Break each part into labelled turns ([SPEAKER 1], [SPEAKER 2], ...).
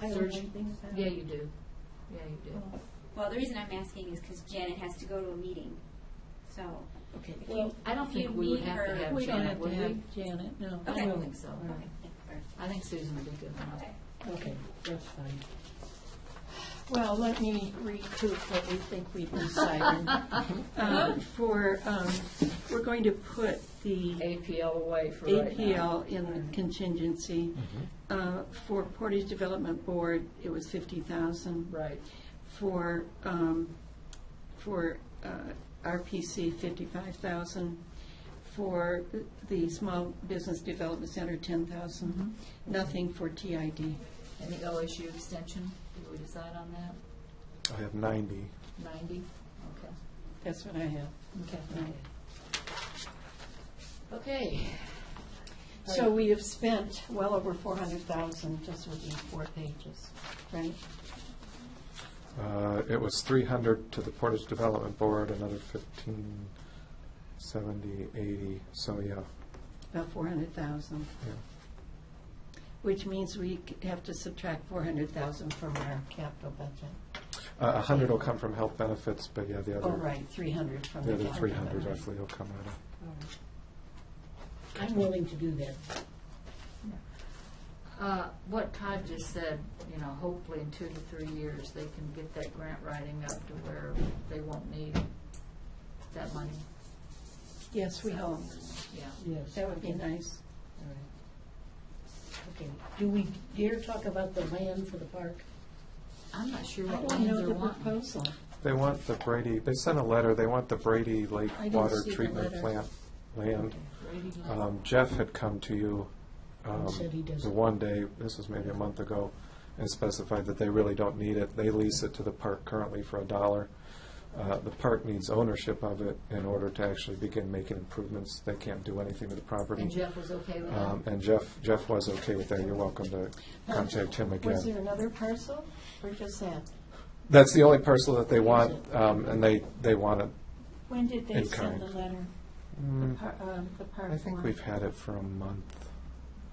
[SPEAKER 1] I don't
[SPEAKER 2] Search-
[SPEAKER 1] think so.
[SPEAKER 2] Yeah, you do. Yeah, you do.
[SPEAKER 3] Well, the reason I'm asking is because Janet has to go to a meeting, so.
[SPEAKER 1] Okay,
[SPEAKER 3] if
[SPEAKER 1] well,
[SPEAKER 3] you-
[SPEAKER 2] I don't
[SPEAKER 3] if
[SPEAKER 2] think
[SPEAKER 3] you
[SPEAKER 2] we would
[SPEAKER 3] need
[SPEAKER 2] have to
[SPEAKER 3] her-
[SPEAKER 2] have
[SPEAKER 1] we don't
[SPEAKER 2] Janet,
[SPEAKER 1] have to
[SPEAKER 2] would we?
[SPEAKER 1] have Janet, no.
[SPEAKER 2] I
[SPEAKER 3] Okay.
[SPEAKER 2] don't think so.
[SPEAKER 1] All
[SPEAKER 3] Okay, thanks, sir.
[SPEAKER 2] I think Susan would be good enough.
[SPEAKER 3] Okay.
[SPEAKER 1] Okay, that's fine. Well, let me recoup what we think we've decided. Um, For, um, we're going to put the
[SPEAKER 2] APL away for right now.
[SPEAKER 1] APL
[SPEAKER 2] Mm-hmm.
[SPEAKER 1] in contingency. Uh, For Portage Development Board, it was 50,000.
[SPEAKER 2] Right.
[SPEAKER 1] For, um, for uh, RPC, 55,000. For the Small Business Development Center, 10,000. Nothing for TID.
[SPEAKER 2] And the OSU extension, did we decide on that?
[SPEAKER 4] I have 90.
[SPEAKER 2] Ninety? Okay.
[SPEAKER 1] That's what I have.
[SPEAKER 2] Okay. Okay.
[SPEAKER 1] So we have spent well over four hundred thousand just with these four pages, right?
[SPEAKER 4] Uh, It was 300 to the Portage Development Board, another 15, 70, 80, so yeah,
[SPEAKER 1] About four hundred thousand,
[SPEAKER 4] yeah.
[SPEAKER 1] which means we c- have to subtract four hundred thousand from our capital budget.
[SPEAKER 4] Uh, 100 will come from health benefits, but yeah, the
[SPEAKER 1] Oh,
[SPEAKER 4] other,
[SPEAKER 1] right, three hundred from
[SPEAKER 4] the
[SPEAKER 1] the
[SPEAKER 4] other
[SPEAKER 1] capital.
[SPEAKER 4] 300
[SPEAKER 1] budget.
[SPEAKER 4] roughly will come out of.
[SPEAKER 1] All right.
[SPEAKER 5] I'm willing to do that.
[SPEAKER 2] Uh, What Todd just said, you know, hopefully in two to three years, they can get that grant writing up to where they won't need that money.
[SPEAKER 1] Yes, we hope.
[SPEAKER 2] Yeah.
[SPEAKER 5] Yes.
[SPEAKER 1] That would be nice.
[SPEAKER 5] All right. Okay, do we dare talk about the land for the park?
[SPEAKER 2] I'm not sure
[SPEAKER 1] I
[SPEAKER 2] what
[SPEAKER 1] don't
[SPEAKER 2] land
[SPEAKER 1] know
[SPEAKER 2] they're
[SPEAKER 1] the
[SPEAKER 2] wanting.
[SPEAKER 1] proposal.
[SPEAKER 4] They want the Brady, they sent a letter, they want the Brady Lake
[SPEAKER 1] I didn't
[SPEAKER 4] Water
[SPEAKER 1] see the
[SPEAKER 4] Treatment
[SPEAKER 1] letter.
[SPEAKER 4] Plant land.
[SPEAKER 2] Brady Lake.
[SPEAKER 4] Um, Jeff had come to you um,
[SPEAKER 5] And said he doesn't.
[SPEAKER 4] the one day, this was maybe a month ago, and specified that they really don't need it. They lease it to the park currently for a dollar. Uh, The park needs ownership of it in order to actually begin making improvements. They can't do anything to the
[SPEAKER 2] And
[SPEAKER 4] property.
[SPEAKER 2] Jeff was okay with
[SPEAKER 4] Um,
[SPEAKER 2] that?
[SPEAKER 4] And Jeff, Jeff was okay with that. You're welcome to contact him
[SPEAKER 1] Was there
[SPEAKER 4] again.
[SPEAKER 1] another parcel or just that?
[SPEAKER 4] That's the only parcel that they want, um, and they, they want it.
[SPEAKER 1] When did they
[SPEAKER 4] In
[SPEAKER 1] send
[SPEAKER 4] kind.
[SPEAKER 1] the letter? The
[SPEAKER 4] Mm,
[SPEAKER 1] par- um, the park
[SPEAKER 4] I think
[SPEAKER 1] one?
[SPEAKER 4] we've had it for a month.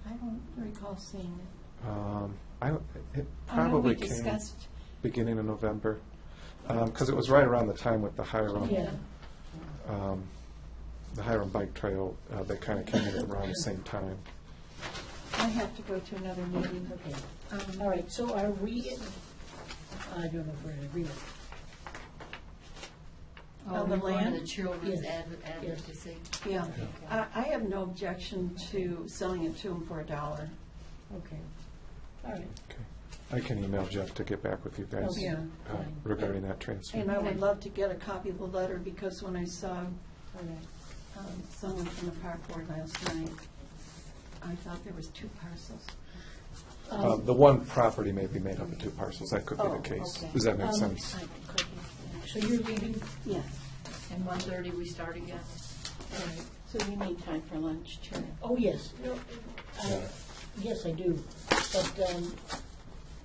[SPEAKER 1] I don't recall seeing it.
[SPEAKER 4] Um, I,
[SPEAKER 1] I
[SPEAKER 4] it
[SPEAKER 1] know we
[SPEAKER 4] probably came.
[SPEAKER 1] discussed
[SPEAKER 4] beginning of November, because it was right around the time with the Hiram,
[SPEAKER 5] Yeah.
[SPEAKER 4] um, the Hiram Bike Trail, uh, that kind of came in around the same time.
[SPEAKER 1] I have to go to another meeting.
[SPEAKER 5] Okay,
[SPEAKER 1] Um,
[SPEAKER 5] all right, so are we, in- I don't know if we're in agreement.
[SPEAKER 2] Oh,
[SPEAKER 1] on the
[SPEAKER 2] we're going to
[SPEAKER 1] land?
[SPEAKER 2] The children's
[SPEAKER 5] Yes.
[SPEAKER 2] adv- advocacy.
[SPEAKER 1] Yeah,
[SPEAKER 2] Okay.
[SPEAKER 1] I, I have no objection to selling it to them for a dollar.
[SPEAKER 5] Okay, all right,
[SPEAKER 4] Okay, I can email Jeff to get back with you guys
[SPEAKER 1] Okay. Oh, Yeah.
[SPEAKER 4] uh, regarding that transfer.
[SPEAKER 1] And I would love to get a copy of the letter because when I saw
[SPEAKER 5] all right.
[SPEAKER 1] um, someone from the park board last night, I thought there was two parcels.
[SPEAKER 4] Uh,
[SPEAKER 5] Um,
[SPEAKER 4] The one property may be made up of two parcels, that could be
[SPEAKER 1] um, Oh,
[SPEAKER 4] the case.
[SPEAKER 1] okay.
[SPEAKER 4] Does that make
[SPEAKER 5] Um,
[SPEAKER 4] sense?
[SPEAKER 5] So you're leaving,
[SPEAKER 1] Yeah,
[SPEAKER 2] And one thirty, we start again?
[SPEAKER 1] all right. So we need time for lunch, too.
[SPEAKER 5] oh, yes, no, I-
[SPEAKER 4] Yeah.
[SPEAKER 5] yes, I do, but um,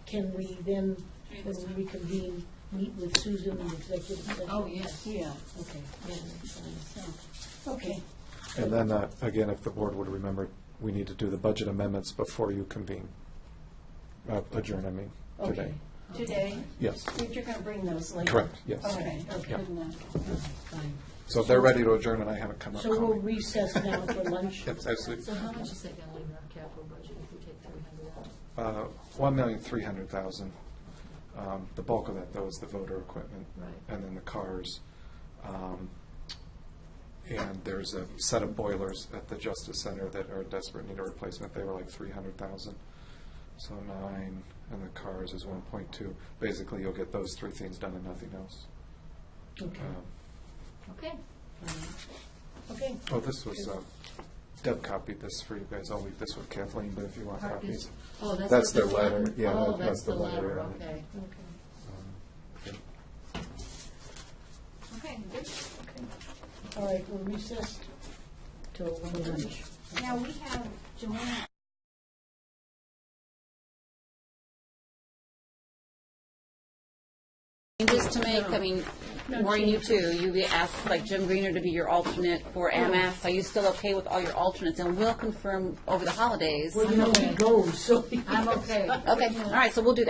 [SPEAKER 5] can we then, when we reconvene, meet with Susan in executive session?
[SPEAKER 2] Oh, yes.
[SPEAKER 1] Yeah.
[SPEAKER 5] Okay,
[SPEAKER 1] yeah, so-
[SPEAKER 5] okay,
[SPEAKER 4] And then, uh, again, if the board would remember, we need to do the budget amendments before you convene, Uh, adjourn, I mean, today.
[SPEAKER 5] Okay.
[SPEAKER 1] Today,
[SPEAKER 4] Yes,
[SPEAKER 1] but you're going to bring those later?
[SPEAKER 4] correct, yes.
[SPEAKER 1] Okay,
[SPEAKER 4] Yeah.
[SPEAKER 1] good enough.
[SPEAKER 5] fine.
[SPEAKER 4] So if they're ready to adjourn and I haven't come up,
[SPEAKER 5] So
[SPEAKER 4] call
[SPEAKER 5] we'll
[SPEAKER 4] me.
[SPEAKER 5] recess now for lunch.
[SPEAKER 4] That's absolutely.
[SPEAKER 2] So how much is that gonna leave in our capital budget if we take three hundred out?
[SPEAKER 4] Uh, One million, three hundred thousand. Um, The bulk of that, though, is the voter equipment.
[SPEAKER 2] Right.
[SPEAKER 4] And then the cars. Um, And there's a set of boilers at the Justice Center that are desperate, need a replacement. They were like three hundred thousand. So nine, and the cars is one point two. Basically, you'll get those three things done and nothing else.
[SPEAKER 5] Okay,
[SPEAKER 4] Um,
[SPEAKER 2] Okay.
[SPEAKER 5] okay.
[SPEAKER 4] Oh, this was, uh, Deb copied this for you guys. I'll leave this with Kathleen, but if you want
[SPEAKER 2] Park
[SPEAKER 4] copies.
[SPEAKER 2] is- Oh, that's. what
[SPEAKER 4] That's their
[SPEAKER 2] the-
[SPEAKER 4] letter. Yeah,
[SPEAKER 2] Oh,
[SPEAKER 4] that-
[SPEAKER 2] that's
[SPEAKER 4] that's
[SPEAKER 2] the
[SPEAKER 4] the letter,
[SPEAKER 2] letter,
[SPEAKER 4] yeah.
[SPEAKER 2] okay.
[SPEAKER 4] um,
[SPEAKER 2] Okay, good.
[SPEAKER 5] All right, we're recessed till lunch.
[SPEAKER 3] Now, we have Joanna
[SPEAKER 6] Changes to make, I mean, Maureen, you too, you asked like Jim Greener to be your alternate for MS, are you still okay with all your alternates? And we'll confirm over the holidays.
[SPEAKER 5] Well, you know, he goes, so.
[SPEAKER 2] I'm okay.
[SPEAKER 6] Okay, all right, so we'll do that.